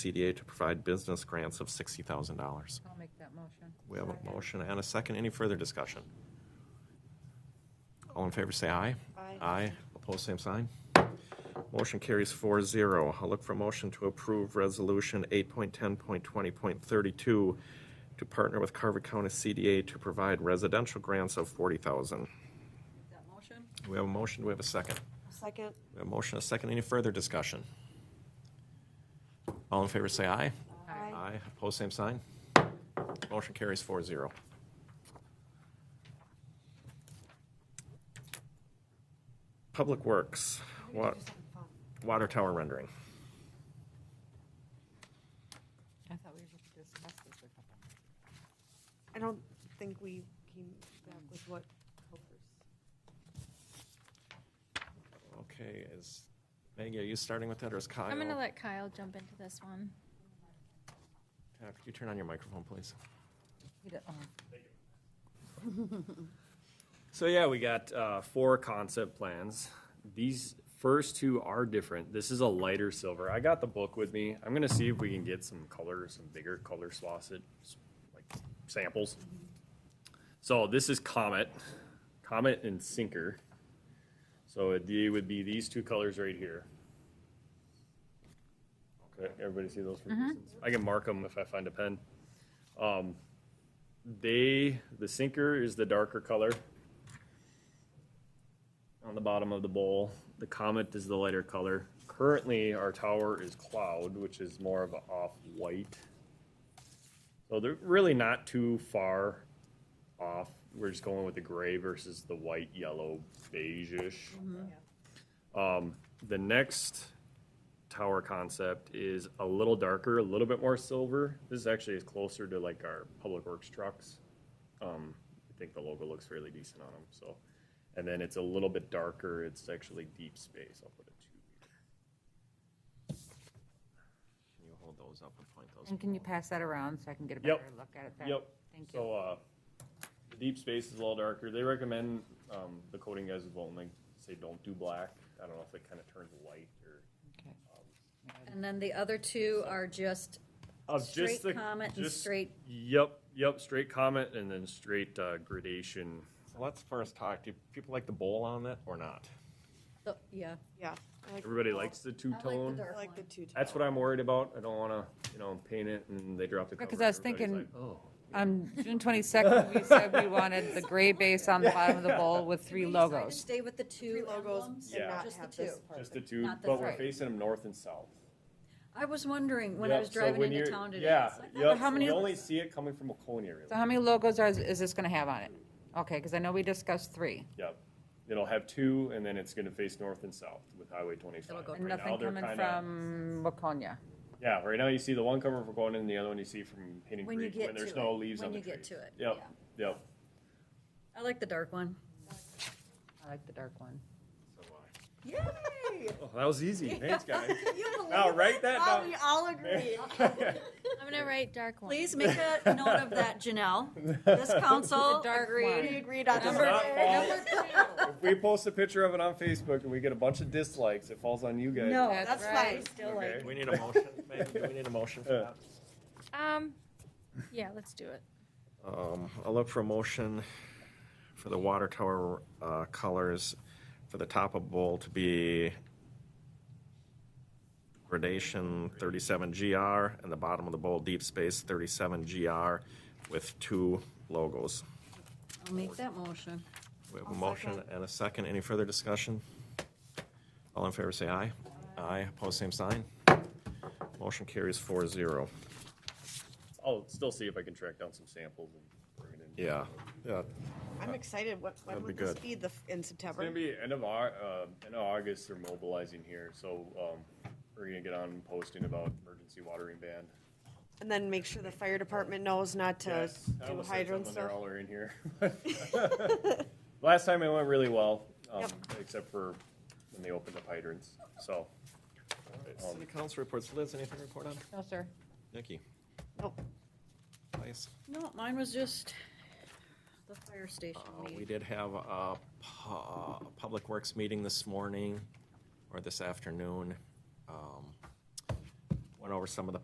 CDA to provide business grants of $60,000. I'll make that motion. We have a motion and a second. Any further discussion? All in favor, say aye. Aye. Aye. Opposed, same sign. Motion carries 4-0. zero. I'll look for a motion to approve Resolution 8.10.20.32 to partner with Carver County CDA to provide residential grants of 40,000. Make that motion? Do we have a motion? Do we have a second? Second. We have a motion, and a second. Any further discussion? All in favor, say aye. Aye. Aye. Opposed, same sign. Motion carries 4-0. zero. Public Works, wa- water tower rendering. I thought we were just discussing this a couple. I don't think we came back with what helpers. Okay, is, Maggie, are you starting with that, or is Kyle? I'm gonna let Kyle jump into this one. Uh, Could you turn on your microphone, please? We did- oh, So yeah, we got uh, four concept plans. These first two are different. This is a lighter silver. I got the book with me. I'm gonna see if we can get some color, some bigger color sausage, like samples. So this is Comet, Comet and Sinker. So it they would be these two colors right here. Okay, everybody see those from distance? I can mark them if I find a pen. Um, they the sinker is the darker color on the bottom of the bowl. The comet is the lighter color. Currently, our tower is cloud, which is more of an off-white. So they're really not too far off. We're just going with the gray versus the white, yellow, beige-ish. Mm-hmm. Um, the next tower concept is a little darker, a little bit more silver. This actually is closer to like our public works trucks. Um, I think the logo looks fairly decent on them. So, and then it's a little bit darker. It's actually deep space. I'll put it two. Can you hold those up and point those? And can you pass that around so I can get a Yep. better look at it? there? Yep. Thank you. So, uh, the deep space is a little darker. They recommend, um, the coating guys as well, and they say don't do black. I don't know if it kind of turns light or. Okay. And then the other two are just Of straight uh, just the- Comet and just- straight, Yep, yep, straight comment and then straight uh, gradation. So Let's first talk, do people like the bowl on it or not? the- yeah. Yeah. I like Everybody the- likes the two I like the tone. I dark like the one. two. That's what I'm worried about. I don't want to, you know, paint it and they drop the Yeah, cover. 'cause I was Everybody's thinking- like, oh, On June 22nd, we said we wanted the gray base on the bottom of the bowl with three We decided to logos. Stay with the two Three logos emblems, and not just the have this two. part. "Oh, just the two, Not the but we're three. facing them north and south. I was wondering when I Yep, was so driving when into you're- town today. Yeah, it's like, "Oh, yep. how many- You only see it coming from Waconia, So really. how many logos are, is this gonna have on it? Okay, because I know we discussed three. Yep. It'll have two and then it's going to face north and south with Highway 25. It'll go And Right now, nothing they're coming kinda- from Waconia. Yeah, right now you see the one coming from Waconia and the other one you see from Hayden When you Creek when get there's to no it, leaves when on the you get trees. to it, Yep, yep. I like the dark one. I like the dark one. Yay! Oh, that was easy. Thanks, guys. You believe Now, write that Oh, down. we all agree. I'm gonna write dark one. Please make a note of that, Janelle. This council The dark We one. agreed. agreed on does number not two. fall. Number two. If we post a picture of it on Facebook and we get a bunch of dislikes, it falls on you guys. No, That's that's right. fine. Still like. Do we need a motion, Maggie? Do we need a motion for that? Um, yeah, let's do it. Um, I'll look for a motion for the water tower uh, colors for the top of bowl to be gradation 37GR and the bottom of the bowl deep space 37GR with two logos. I'll make that motion. We have a I'll motion second. and a second. Any further discussion? All in favor, say aye. Aye. Opposed, same sign. Motion carries 4-0. I'll still see if I can track down some samples and bring it in. Yeah. Yeah. I'm excited. What, when That'd would be this good. be? The, f- in It's gonna September? be end of Au- uh, end of August, they're mobilizing here, so, um, we're gonna get on posting about emergency watering ban. And then make sure the fire department knows not to Yes, I do almost said hydrants something there stuff. while we were in here. Last time it went really well, um, Yep. except for when they opened up hydrants, so. City council reports. Liz, anything to report on? No, sir. Nikki? Nope. Nice. No, mine was just the fire station Uh, We meeting. did have a pu- a Public Works meeting this morning, or this afternoon. Um, Went over some of the